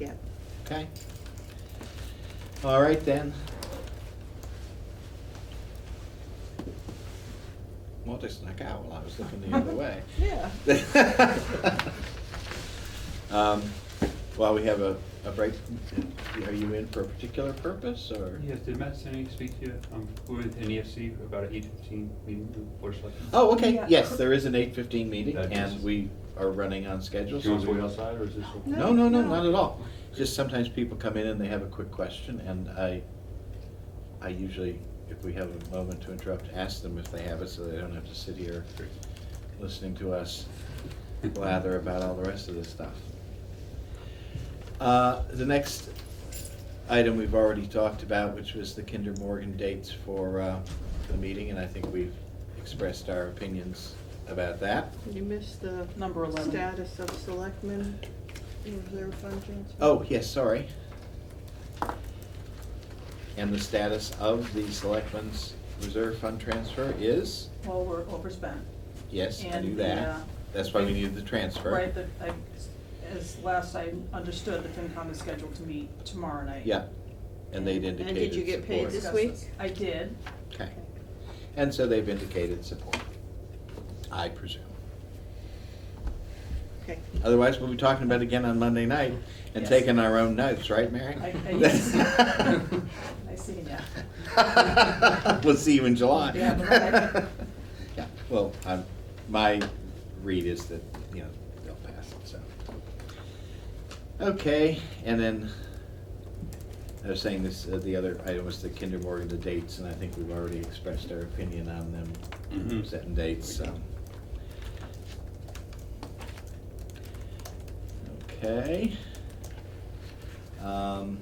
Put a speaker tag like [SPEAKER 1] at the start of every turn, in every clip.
[SPEAKER 1] Yeah.
[SPEAKER 2] Okay. All right then. Well, they snuck out while I was looking the other way.
[SPEAKER 1] Yeah.
[SPEAKER 2] Um, Well, we have a, a break. Are you in for a particular purpose or?
[SPEAKER 3] Yes, did Matt Senni speak to you? Um, we're with NEFC for about an eight fifteen meeting with Board of Selectmen.
[SPEAKER 2] Oh, okay,
[SPEAKER 1] Yeah.
[SPEAKER 2] yes, there is an eight fifteen meeting
[SPEAKER 3] That
[SPEAKER 2] and
[SPEAKER 3] is-
[SPEAKER 2] we are running on schedule.
[SPEAKER 3] Do you want
[SPEAKER 2] so
[SPEAKER 3] to
[SPEAKER 2] we-
[SPEAKER 3] wait outside or is this? okay?
[SPEAKER 2] No, no, no,
[SPEAKER 1] No.
[SPEAKER 2] not at all. Just sometimes people come in and they have a quick question, and I, I usually, if we have a moment to interrupt, ask them if they have it, so they don't have to sit here listening to us blather about all the rest of this stuff. Uh, The next item we've already talked about, which was the Kinder Morgan dates for uh, the meeting, and I think we've expressed our opinions about that.
[SPEAKER 1] You missed the
[SPEAKER 4] Number 11.
[SPEAKER 1] status of selectmen reserve fund transfer.
[SPEAKER 2] Oh, yes, sorry. And the status of the selectmen's reserve fund transfer is,
[SPEAKER 4] Well, we're overspent.
[SPEAKER 2] yes, I
[SPEAKER 4] And
[SPEAKER 2] knew
[SPEAKER 4] the,
[SPEAKER 2] that.
[SPEAKER 4] uh,
[SPEAKER 2] That's why we needed the transfer.
[SPEAKER 4] Right, that I, as last I understood, the FinCom is scheduled to meet tomorrow night.
[SPEAKER 2] Yeah, and they'd
[SPEAKER 1] And did
[SPEAKER 2] indicated support.
[SPEAKER 1] you get paid
[SPEAKER 4] To discuss
[SPEAKER 1] This week?
[SPEAKER 4] this. I did.
[SPEAKER 2] Okay. And so they've indicated support, I presume.
[SPEAKER 1] Okay.
[SPEAKER 2] Otherwise, we'll be talking about it again on Monday night and
[SPEAKER 4] Yes.
[SPEAKER 2] taking our own notes, right, Mary?
[SPEAKER 4] I- I guess. I see, yeah.
[SPEAKER 2] We'll see you in July.
[SPEAKER 4] Yeah, but
[SPEAKER 2] Yeah, well, I'm, my read is that, you know, they'll pass it, so. Okay, and then, I was saying this, uh, the other item was the Kinder Morgan, the dates, and I think we've already expressed our opinion on them,
[SPEAKER 3] Mhm.
[SPEAKER 2] setting dates, um. so. Okay. Um,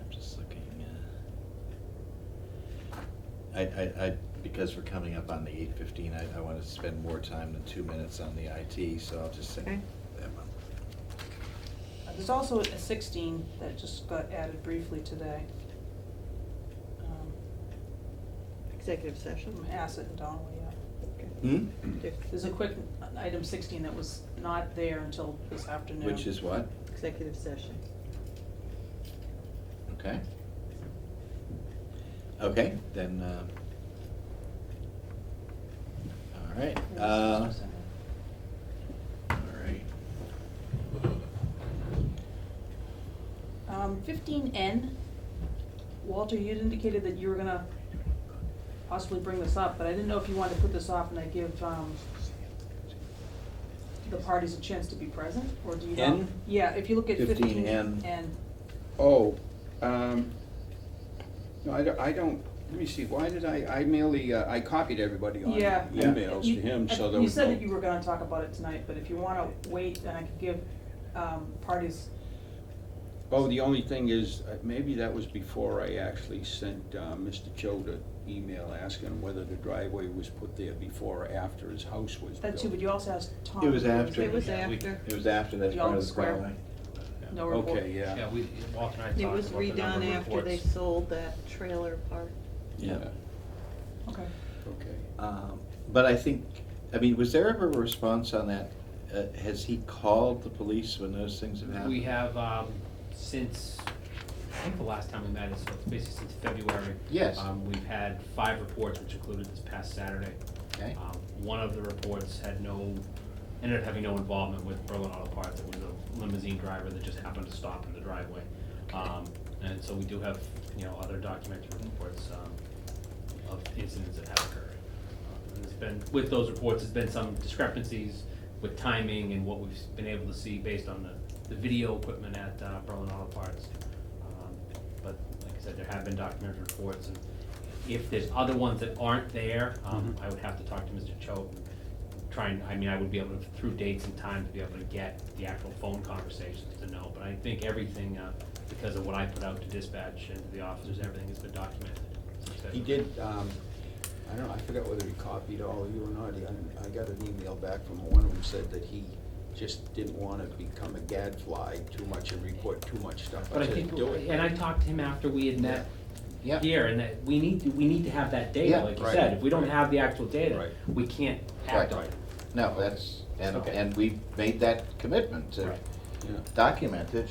[SPEAKER 2] I'm just looking, uh. I, I, I, because we're coming up on the eight fifteen, I, I wanna spend more time than two minutes on the IT, so I'll just say
[SPEAKER 1] Okay.
[SPEAKER 2] that one.
[SPEAKER 4] Uh, There's also a sixteen that just got added briefly today. Um,
[SPEAKER 1] Executive session.
[SPEAKER 4] From Asset and Donnelly, yeah.
[SPEAKER 1] Okay.
[SPEAKER 2] Hmm?
[SPEAKER 4] There's a quick, item sixteen that was not there until this afternoon.
[SPEAKER 2] Which is what?
[SPEAKER 1] Executive session.
[SPEAKER 2] Okay. Okay, then, um. All right, uh, all right.
[SPEAKER 4] Um, fifteen N, Walter, you'd indicated that you were gonna possibly bring this up, but I didn't know if you wanted to put this off and I give, um, the parties a chance to be present, or do you not?
[SPEAKER 2] N?
[SPEAKER 4] Yeah, if you look at fifteen
[SPEAKER 2] 15N.
[SPEAKER 4] N,
[SPEAKER 5] Oh, um, no, I don't, I don't, let me see, why did I, I merely, uh, I copied everybody on
[SPEAKER 4] yeah. I-
[SPEAKER 5] emails
[SPEAKER 4] you-
[SPEAKER 5] to him,
[SPEAKER 4] I-
[SPEAKER 5] so there
[SPEAKER 4] You
[SPEAKER 5] was
[SPEAKER 4] said
[SPEAKER 5] no-
[SPEAKER 4] that you were gonna talk about it tonight, but if you wanna wait, then I could give, um, parties,
[SPEAKER 5] Oh, the only thing is, uh, maybe that was before I actually sent, uh, Mr. Choate an email asking whether the driveway was put there before or after his house was built.
[SPEAKER 4] that too, but you also asked Tom.
[SPEAKER 2] It was after.
[SPEAKER 1] It was
[SPEAKER 2] Yeah, we-
[SPEAKER 1] after.
[SPEAKER 2] It was after, that's
[SPEAKER 4] Beyond
[SPEAKER 2] part of
[SPEAKER 4] the
[SPEAKER 2] the
[SPEAKER 4] square.
[SPEAKER 2] problem.
[SPEAKER 4] No report.
[SPEAKER 5] Okay, yeah,
[SPEAKER 6] Yeah, we, Walter and I talked
[SPEAKER 1] It
[SPEAKER 6] about
[SPEAKER 1] was
[SPEAKER 6] the number of
[SPEAKER 1] redone after they
[SPEAKER 6] reports.
[SPEAKER 1] sold that trailer park.
[SPEAKER 2] Yeah.
[SPEAKER 4] Okay.
[SPEAKER 5] okay.
[SPEAKER 2] Um, But I think, I mean, was there ever a response on that? Uh, Has he called the police when those things have happened?
[SPEAKER 6] We have, um, since, I think the last time we met is, so it's basically since February.
[SPEAKER 2] Yes.
[SPEAKER 6] Um, we've had five reports, which included this past Saturday.
[SPEAKER 2] Okay,
[SPEAKER 6] Um, one of the reports had no, ended up having no involvement with Berlin Auto Parts, it was a limousine driver that just happened to stop in the driveway. Um, and so we do have, you know, other documented reports, um, of incidents that have occurred. Um, And it's been, with those reports, there's been some discrepancies with timing and what we've been able to see based on the, the video equipment at, uh, Berlin Auto Parts. Um, But like I said, there have been documented reports and if there's other ones that aren't there, um, I would have to talk to Mr. Cho. Try and, I mean, I would be able to, through dates and times, be able to get the actual phone conversations to know. But I think everything, uh, because of what I put out to dispatch and to the officers, everything has been documented.
[SPEAKER 5] He did, um, I don't know, I forgot whether he copied all of you or not, I, I got an email back from one of them said that he just didn't wanna become a gadfly too much and report too much stuff.
[SPEAKER 6] But I
[SPEAKER 5] said,
[SPEAKER 6] think,
[SPEAKER 5] "Do it."
[SPEAKER 6] and I talked to him after we had met
[SPEAKER 2] yeah.
[SPEAKER 6] here, and that, we need to, we need to have that data,
[SPEAKER 2] Yeah,
[SPEAKER 6] like you
[SPEAKER 5] right,
[SPEAKER 6] said. If we don't
[SPEAKER 5] right.
[SPEAKER 6] have the actual data,
[SPEAKER 5] Right.
[SPEAKER 6] we can't
[SPEAKER 2] Right,
[SPEAKER 6] act on it.
[SPEAKER 2] No, that's, and,
[SPEAKER 6] Okay.
[SPEAKER 2] and we made that commitment to
[SPEAKER 6] Right.
[SPEAKER 5] Yeah.
[SPEAKER 2] documented,